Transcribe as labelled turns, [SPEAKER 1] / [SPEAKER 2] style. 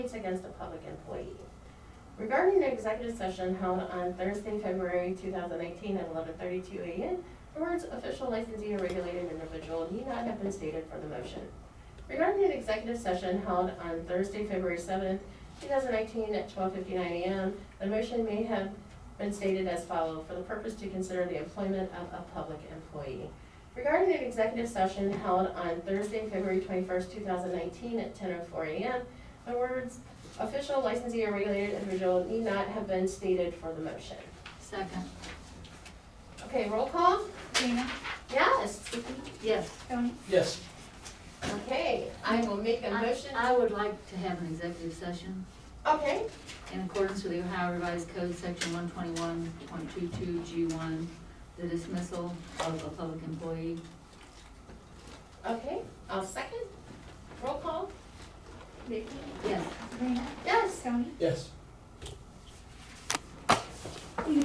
[SPEAKER 1] It's against a public employee. Regarding the executive session held on Thursday, February two thousand eighteen at eleven thirty-two AM, the words official licensee or regulated individual need not have been stated for the motion. Regarding the executive session held on Thursday, February seventh, two thousand eighteen at twelve fifty-nine AM, the motion may have been stated as follows, for the purpose to consider the employment of a public employee. Regarding the executive session held on Thursday, February twenty-first, two thousand nineteen at ten oh four AM, the words official licensee or regulated individual need not have been stated for the motion.
[SPEAKER 2] Second.
[SPEAKER 1] Okay, roll call?
[SPEAKER 3] Dana,
[SPEAKER 1] Yes.
[SPEAKER 2] Yes.
[SPEAKER 3] Tony,
[SPEAKER 4] Yes.
[SPEAKER 1] Okay, I will make a
[SPEAKER 2] I
[SPEAKER 1] motion.
[SPEAKER 2] I would like to have an executive session
[SPEAKER 1] Okay,
[SPEAKER 2] in accordance with the Ohio Revised Code, section one twenty-one, point two-two, G one, the dismissal of a public employee.
[SPEAKER 1] okay, I'll second. Roll call?
[SPEAKER 3] Vicky,
[SPEAKER 2] Yes.
[SPEAKER 3] Sabrina,
[SPEAKER 1] Yes.
[SPEAKER 3] Tony,
[SPEAKER 4] Yes.